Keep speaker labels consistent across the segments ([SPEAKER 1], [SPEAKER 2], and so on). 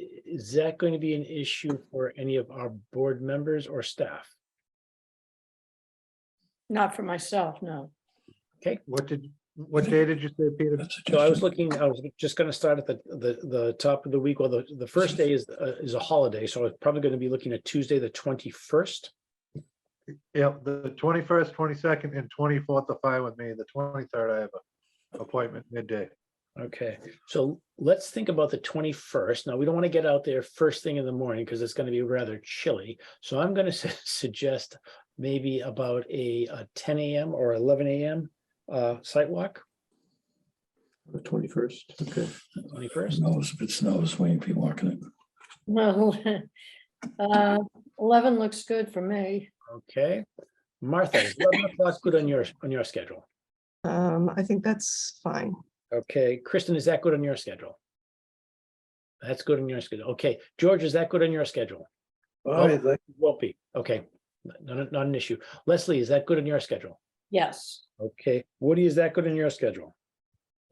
[SPEAKER 1] is that going to be an issue for any of our board members or staff?
[SPEAKER 2] Not for myself, no.
[SPEAKER 3] What did, what day did you say, Peter?
[SPEAKER 1] So I was looking, I was just gonna start at the, the, the top of the week, well, the, the first day is, uh, is a holiday, so I'm probably gonna be looking at Tuesday, the twenty-first.
[SPEAKER 3] Yep, the twenty-first, twenty-second, and twenty-fourth are fine with me. The twenty-third, I have a appointment midday.
[SPEAKER 1] Okay, so let's think about the twenty-first. Now, we don't want to get out there first thing in the morning because it's going to be rather chilly. So I'm going to suggest maybe about a uh, ten AM or eleven AM uh, site walk,
[SPEAKER 4] The twenty-first, okay.
[SPEAKER 1] twenty-first.
[SPEAKER 5] Snows, if it snows, we ain't be walking it.
[SPEAKER 2] Well, uh, eleven looks good for me.
[SPEAKER 1] Okay, Martha, is eleven o'clock good on your, on your schedule. Uh,
[SPEAKER 6] Um, I think that's fine.
[SPEAKER 1] Okay, Kristen, is that good on your schedule? That's good on your schedule. Okay, George, is that good on your schedule?
[SPEAKER 4] I think
[SPEAKER 1] Won't be. Okay, not, not an issue. Leslie, is that good on your schedule?
[SPEAKER 2] Yes.
[SPEAKER 1] Okay, Woody, is that good in your schedule?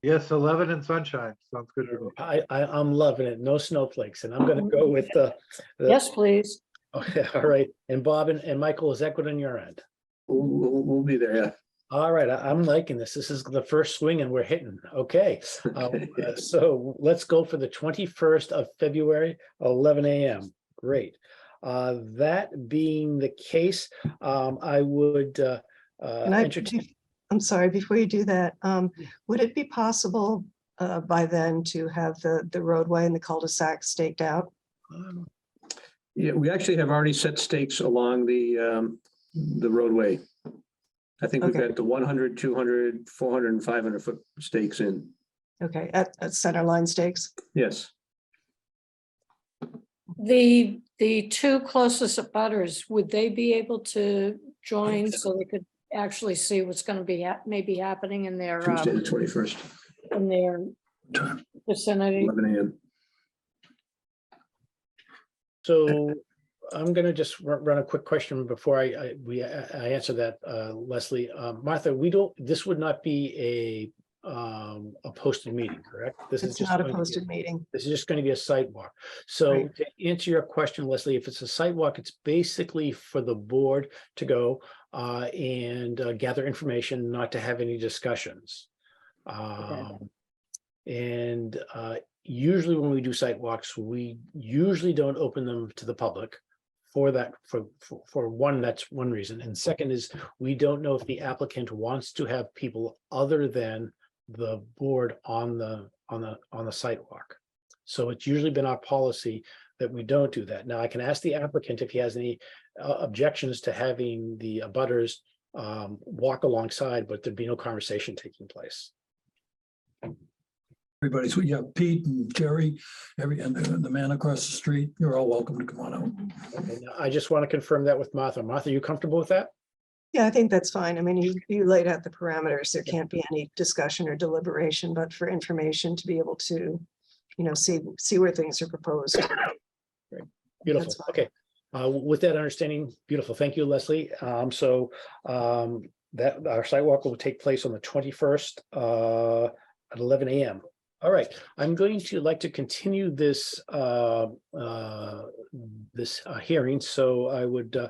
[SPEAKER 3] Yes, eleven and sunshine. Sounds good to me.
[SPEAKER 1] I, I, I'm loving it. No snowflakes, and I'm gonna go with the. the-
[SPEAKER 2] Yes, please.
[SPEAKER 1] Okay, all right. And Bob and, and Michael, is that good on your end?
[SPEAKER 4] we'll, we'll, we'll be there.
[SPEAKER 1] All right, I, I'm liking this. This is the first swing and we're hitting. Okay. uh, uh, So let's go for the twenty-first of February, eleven AM. Great. Uh, that being the case, um, I would, uh, uh,
[SPEAKER 6] And I,
[SPEAKER 1] entertain-
[SPEAKER 6] bef- I'm sorry, before you do that, um, would it be possible uh, by then to have the, the roadway and the cul-de-sac staked out?
[SPEAKER 4] Yeah, we actually have already set stakes along the, um, the roadway. I think we've
[SPEAKER 6] Okay.
[SPEAKER 4] got the 100, 200, 400, and 500 foot stakes in.
[SPEAKER 6] Okay, at, at center line stakes?
[SPEAKER 4] Yes,
[SPEAKER 2] The, the two closest abutters, would they be able to join so they could actually see what's gonna be, hap- maybe happening in their,
[SPEAKER 4] Tuesday, the
[SPEAKER 2] um,
[SPEAKER 4] 21st,
[SPEAKER 2] in their
[SPEAKER 5] Time.
[SPEAKER 2] vicinity?
[SPEAKER 4] 11 a.m.
[SPEAKER 1] So I'm gonna just ru- run a quick question before I, I, we, I I answer that, uh, Leslie. Uh, Martha, we don't, this would not be a, um, a posted meeting, correct? This is
[SPEAKER 6] It's
[SPEAKER 1] just
[SPEAKER 6] not a
[SPEAKER 1] going to be
[SPEAKER 6] posted meeting.
[SPEAKER 1] This is just gonna be a site walk. So
[SPEAKER 6] Right.
[SPEAKER 1] to answer your question, Leslie, if it's a site walk, it's basically for the board to go, uh, and uh, gather information, not to have any discussions. Um, and, uh, usually when we do site walks, we usually don't open them to the public for that, for, for, for one, that's one reason. And second is, we don't know if the applicant wants to have people other than the board on the, on the, on the sidewalk. So it's usually been our policy that we don't do that. Now, I can ask the applicant if he has any uh, objections to having the abutters um, walk alongside, but there'd be no conversation taking place.
[SPEAKER 5] Everybody, so we have Pete and Jerry, every, and the the man across the street, you're all welcome to come on out.
[SPEAKER 1] And I just want to confirm that with Martha. Martha, you comfortable with that?
[SPEAKER 6] Yeah, I think that's fine. I mean, you, you laid out the parameters. There can't be any discussion or deliberation, but for information to be able to, you know, see, see where things are proposed.
[SPEAKER 1] Beautiful,
[SPEAKER 6] fine.
[SPEAKER 1] okay. Uh, with that understanding, beautiful. Thank you, Leslie. Um, so, um, that, our sidewalk will take place on the twenty-first, uh, at eleven AM. All right, I'm going to like to continue this, uh, uh, this, uh, hearing, so I would, uh,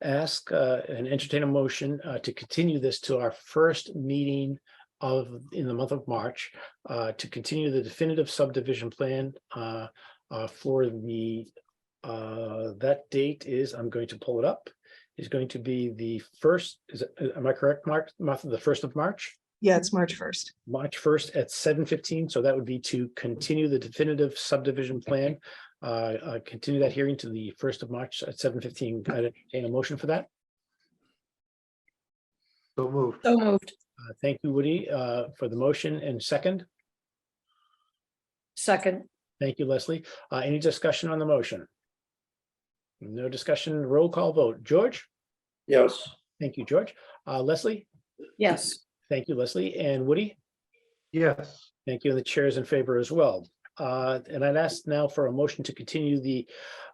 [SPEAKER 1] ask, uh, and entertain a motion, uh, to continue this to our first meeting of, in the month of March, uh, to continue the definitive subdivision plan, uh, uh, for the uh, that date is, I'm going to pull it up, is going to be the first, is, it- am I correct, Mark, Martha, the first of March?
[SPEAKER 6] Yeah, it's March 1st.
[SPEAKER 1] March first at seven fifteen, so that would be to continue the definitive subdivision plan. Uh, uh, continue that hearing to the first of March at seven fifteen. I entertain a motion for that.
[SPEAKER 3] So moved.
[SPEAKER 2] So moved.
[SPEAKER 1] Uh, thank you, Woody, uh, for the motion and second.
[SPEAKER 2] Second,
[SPEAKER 1] Thank you, Leslie. Uh, any discussion on the motion? No discussion, roll call vote. George?
[SPEAKER 4] Yes.
[SPEAKER 1] Thank you, George. Uh, Leslie?
[SPEAKER 2] yes.
[SPEAKER 1] Thank you, Leslie. And Woody?
[SPEAKER 3] Yes,
[SPEAKER 1] Thank you. And the chair is in favor as well. Uh, And I'd ask now for a motion to continue the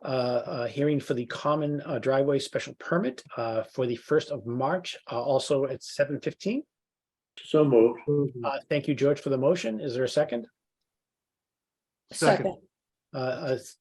[SPEAKER 1] uh, uh, hearing for the common uh, driveway special permit uh, for the first of March, uh, also at seven fifteen.
[SPEAKER 4] So moved.
[SPEAKER 1] Uh, Thank you, George, for the motion. Is there a second?
[SPEAKER 3] Second.
[SPEAKER 2] Second,
[SPEAKER 1] Uh, uh,